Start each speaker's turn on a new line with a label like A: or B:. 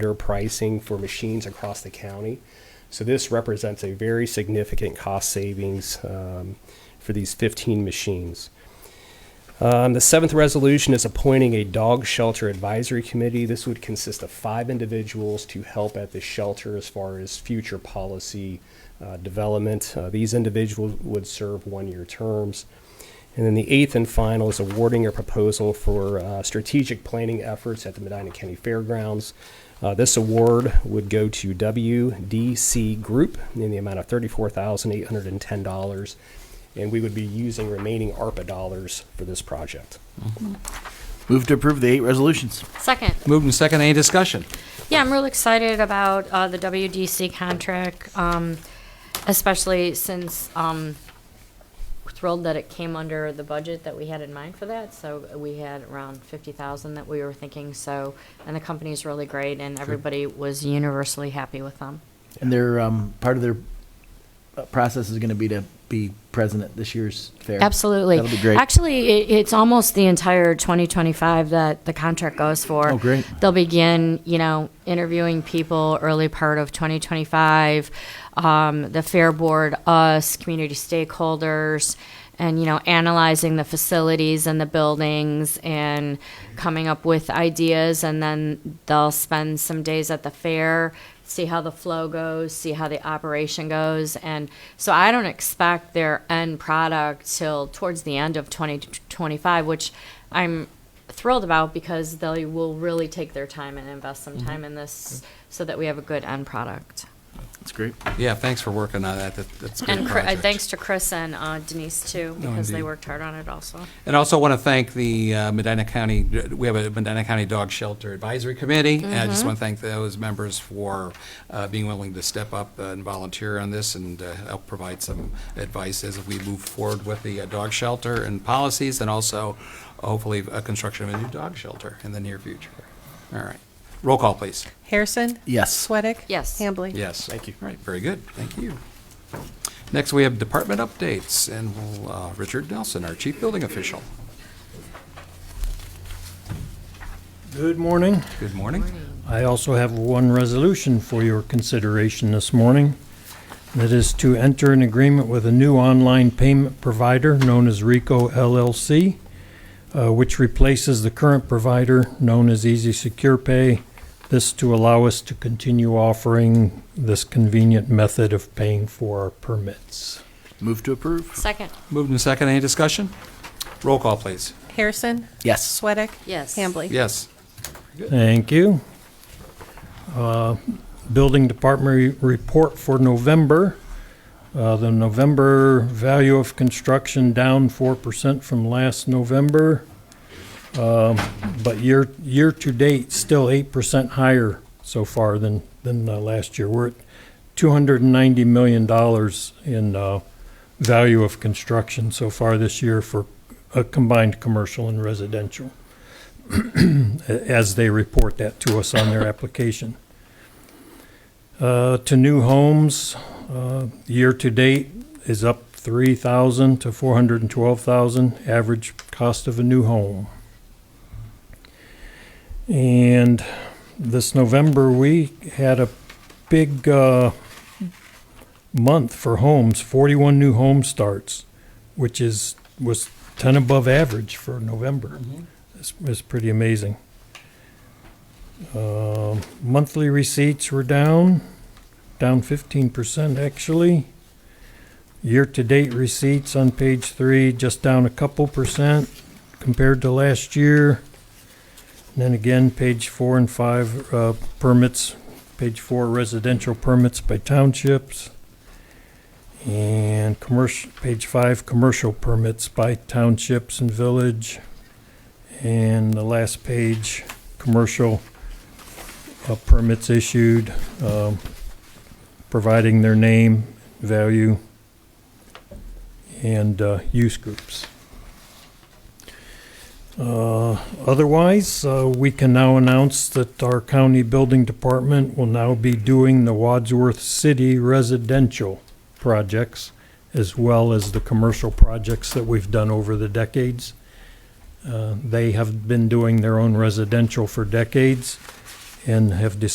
A: better pricing for machines across the county. So this represents a very significant cost savings um, for these 15 machines. Um, The seventh resolution is appointing a dog shelter advisory committee. This would consist of five individuals to help at the shelter as far as future policy uh, development. Uh, These individuals would serve one-year terms. And then the eighth and final is awarding a proposal for uh, strategic planning efforts at the Medina County Fairgrounds. Uh, This award would go to WDC Group in the amount of $34,810 and we would be using remaining ARPA dollars for this project.
B: Move to approve the eight resolutions.
C: Second.
D: Moved and second, any discussion?
C: Yeah, I'm real excited about uh, the WDC contract, um, especially since um, thrilled that it came under the budget that we had in mind for that. So we had around 50,000 that we were thinking. So, and the company's really great, and everybody was universally happy with them.
B: And their, um, part of their uh, process is going to be to be present at this year's fair.
C: Absolutely.
B: That'll be great.
C: Actually, it, it's almost the entire 2025 that the contract goes for.
B: Oh, great.
C: They'll begin, you know, interviewing people early part of 2025. Um, the fair board, us, community stakeholders, and you know, analyzing the facilities and the buildings and coming up with ideas. And then they'll spend some days at the fair, see how the flow goes, see how the operation goes. And so I don't expect their end product till towards the end of 2025, which I'm thrilled about because they will really take their time and invest some time in this so that we have a good end product.
B: That's great.
D: Yeah, thanks for working on that, That- that's a good
C: And Chri- uh,
D: project.
C: thanks to Chris and uh, Denise too, because they
D: indeed.
C: worked hard on it also.
D: And also want to thank the uh, Medina County, we have a Medina County Dog Shelter Advisory Committee. And I
C: Mm-hmm.
D: just want to thank those members for uh, being willing to step up and volunteer on this and uh, help provide some advice as we move forward with the uh, dog shelter and policies and also hopefully a construction of a new dog shelter in the near future. All right. Roll call, please.
E: Harrison?
B: Yes.
E: Sweattick?
C: Yes.
E: Hambley?
D: Yes.
A: Thank you.
D: All right, very good. Thank you. Next, we have department updates and we'll, uh, Richard Nelson, our chief building official.
F: Good morning.
D: Good morning.
F: I also have one resolution for your consideration this morning. That is to enter an agreement with a new online payment provider known as Rico LLC, uh, which replaces the current provider known as Easy Secure Pay. This to allow us to continue offering this convenient method of paying for our permits.
B: Move to approve.
C: Second,
D: Moved and second, any discussion? Roll call, please.
E: Harrison?
B: Yes.
E: Sweattick?
C: yes.
E: Hambley?
D: Yes.
F: Thank you. Uh, Building Department re- report for November. Uh, The November value of construction down 4% from last November, Um, but year, year-to-date, still 8% higher so far than, than uh, last year. We're at $290 million in uh, value of construction so far this year for a combined commercial and residential as they report that to us on their application. Uh, To new homes, uh, year-to-date is up 3,000 to 412,000, average cost of a new home. And this November, we had a big uh, month for homes, 41 new home starts, which is, was 10 above average for November. It's it's pretty amazing. Um, Monthly receipts were down, down fifteen percent actually. Year-to-date receipts on page three, just down a couple percent compared to last year. And then again, page four and five, uh, permits, page four residential permits by townships. And commercial, page five, commercial permits by townships and village. And the last page, commercial uh, permits issued, um, providing their name, value, and uh, use groups. Uh, Otherwise, uh, we can now announce that our county building department will now be doing the Wadsworth City residential projects as well as the commercial projects that we've done over the decades. Uh, They have been doing their own residential for decades and have decided